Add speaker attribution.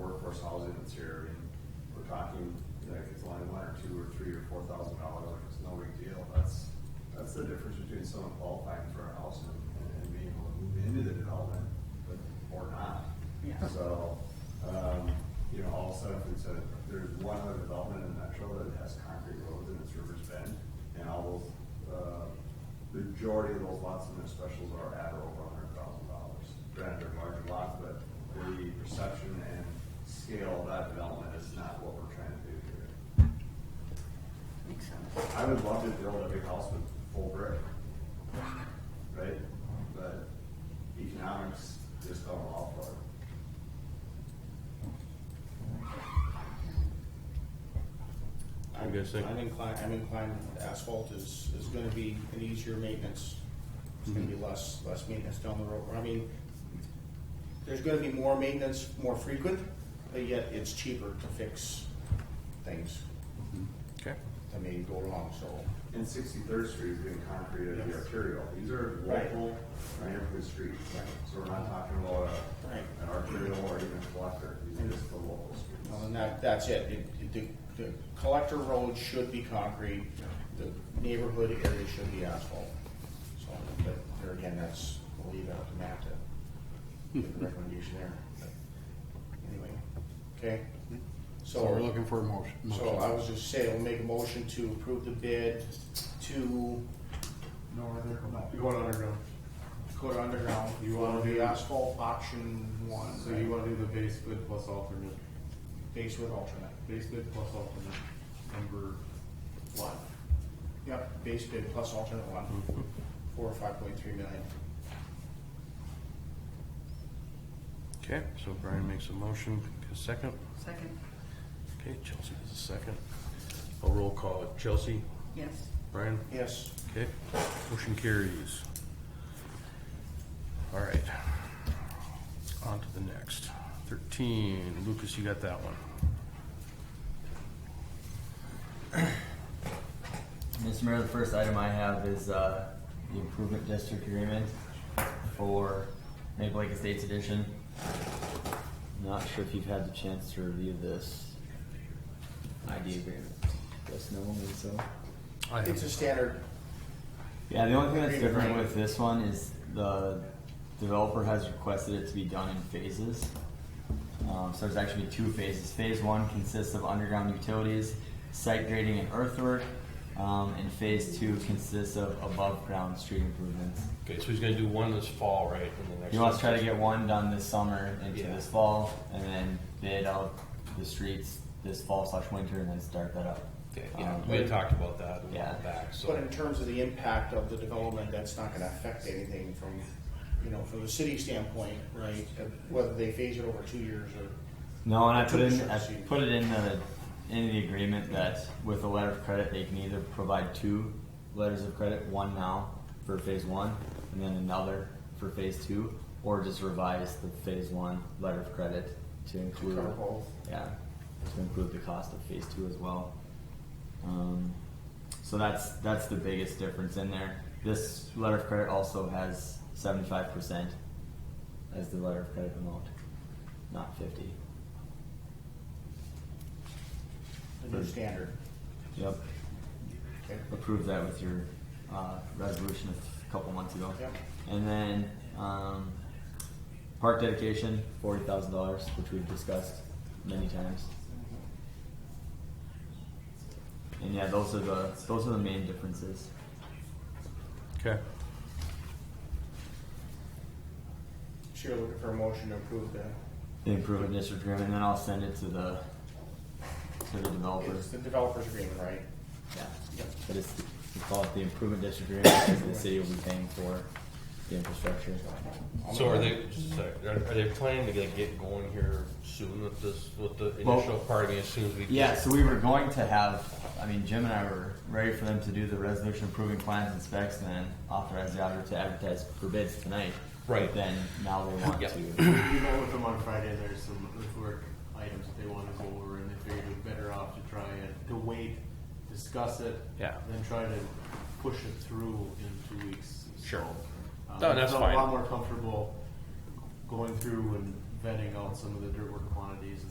Speaker 1: worse housing that's here, and we're talking, like, it's only one or two or three or four thousand dollars, like, it's no big deal, that's, that's the difference between someone qualifying for a house and, and being able to move into the development, but, or not.
Speaker 2: Yeah.
Speaker 1: So, um, you know, all of a sudden, it's a, there's one other development in Metro that has concrete roads and it's Rivers Bend, and all those, uh, the majority of those lots in their specials are at or over a hundred thousand dollars. Granted, they're larger lots, but the perception and scale of that development is not what we're trying to do here.
Speaker 2: Makes sense.
Speaker 1: I would love to build a big house with full brick, right? But economics just don't allow for it.
Speaker 3: I'm guessing.
Speaker 4: I'm inclined, I'm inclined, asphalt is, is gonna be an easier maintenance. It's gonna be less, less maintenance down the road. I mean, there's gonna be more maintenance, more frequent, but yet it's cheaper to fix things
Speaker 3: Okay.
Speaker 4: that may go wrong, so.
Speaker 1: And Sixty-third Street is being concreted as the
Speaker 4: Yes.
Speaker 1: arterial. These are
Speaker 4: Right.
Speaker 1: local, neighborhood streets.
Speaker 4: Right.
Speaker 1: So we're not talking about a-
Speaker 4: Right.
Speaker 1: an arterial or even a collector. These are just the local
Speaker 4: Well,
Speaker 1: streets.
Speaker 4: And that, that's it. It- The, the collector road should be concrete, the neighborhood area should be asphalt. So, but there again, that's, we'll leave that up to Matt to give the recommendation there. But Anyway, okay?
Speaker 5: So we're looking for a motion.
Speaker 4: So I was just saying, we'll make a motion to approve the bid to
Speaker 5: Northern,
Speaker 6: You want underground,
Speaker 4: Dakota Underground.
Speaker 6: You wanna
Speaker 4: for the
Speaker 6: do-
Speaker 4: Asphalt option one,
Speaker 6: so you wanna do the base bid plus alternate,
Speaker 4: base with alternate.
Speaker 6: base bid plus alternate, number one.
Speaker 4: Yep, base bid plus alternate one, four or five point three million.
Speaker 3: Okay, so Brian makes a motion, a second.
Speaker 2: Second,
Speaker 3: Okay, Chelsea does a second. A roll call. Chelsea,
Speaker 2: yes.
Speaker 3: Brian,
Speaker 4: Yes.
Speaker 3: okay, motion carries. All right. On to the next. Thirteen, Lucas, you got that one.
Speaker 7: Mr. Mayor, the first item I have is uh, the improvement district agreement for Maple Lake Estates Edition. Not sure if you've had the chance to review this ID agreement. Yes, no one would so.
Speaker 3: I
Speaker 4: It's a standard,
Speaker 7: Yeah, the only thing that's
Speaker 4: Agreement,
Speaker 7: different
Speaker 4: right.
Speaker 7: with this one is the developer has requested it to be done in phases. Um, so there's actually two phases. Phase one consists of underground utilities, site grading and earthwork. Um, and phase two consists of above ground street improvements.
Speaker 3: Okay, so he's gonna do one this fall, right, in the next.
Speaker 7: He wants to try to get one done this summer into
Speaker 3: Yeah.
Speaker 7: this fall and then bid out the streets this fall slash winter and then start that up.
Speaker 3: Okay, yeah,
Speaker 7: Um,
Speaker 3: we had talked about that a while
Speaker 7: Yeah.
Speaker 3: back, so.
Speaker 4: but in terms of the impact of the development, that's not gonna affect anything from, you know, from the city standpoint, right? uh, Whether they phase it over two years or,
Speaker 7: No, and I put in,
Speaker 4: Sure,
Speaker 7: I
Speaker 4: see.
Speaker 7: put it in the, in the agreement that with a letter of credit, they can either provide two letters of credit, one now for phase one, and then another for phase two, or just revise the phase one letter of credit to include.
Speaker 4: cover both.
Speaker 7: Yeah, to include the cost of phase two as well. Um, so that's, that's the biggest difference in there. This letter of credit also has seventy-five percent as the letter of credit amount, not fifty.
Speaker 4: the new standard.
Speaker 7: Yep,
Speaker 4: Okay.
Speaker 7: approved that with your uh, resolution a couple months ago.
Speaker 4: Yep.
Speaker 7: And then um, park dedication, forty thousand dollars, which we've discussed many times. And yeah, those are the those are the main differences.
Speaker 3: Okay,
Speaker 4: So you're looking for a motion to approve the,
Speaker 7: The improvement district agreement, and then I'll send it to the to the
Speaker 4: it's
Speaker 7: developers.
Speaker 4: the developer's agreement, right?
Speaker 7: Yeah.
Speaker 4: Yep.
Speaker 7: But it's we call it the improvement district agreement because the city will be paying for the infrastructure.
Speaker 3: so are they, just a sec, are, are they planning to get, get going here soon with this, with the
Speaker 7: Well-
Speaker 3: initial party as soon as we?
Speaker 7: Yeah, so we were going to have, I mean, Jim and I were ready for them to do the resolution approving plans and specs and then authorize the auditor to advertise for bids tonight.
Speaker 3: Right.
Speaker 7: But Then now they want
Speaker 3: Yep.
Speaker 7: to,
Speaker 6: You met with them on Friday, and there's some earthwork items that they wanna go over, and they figured it better off to try and, to wait, discuss it.
Speaker 3: Yeah.
Speaker 6: Then try to push it through in two weeks.
Speaker 3: Sure.
Speaker 6: Um,
Speaker 3: No, that's
Speaker 6: so
Speaker 3: fine.
Speaker 6: A lot more comfortable going through and vetting out some of the dirt work quantities and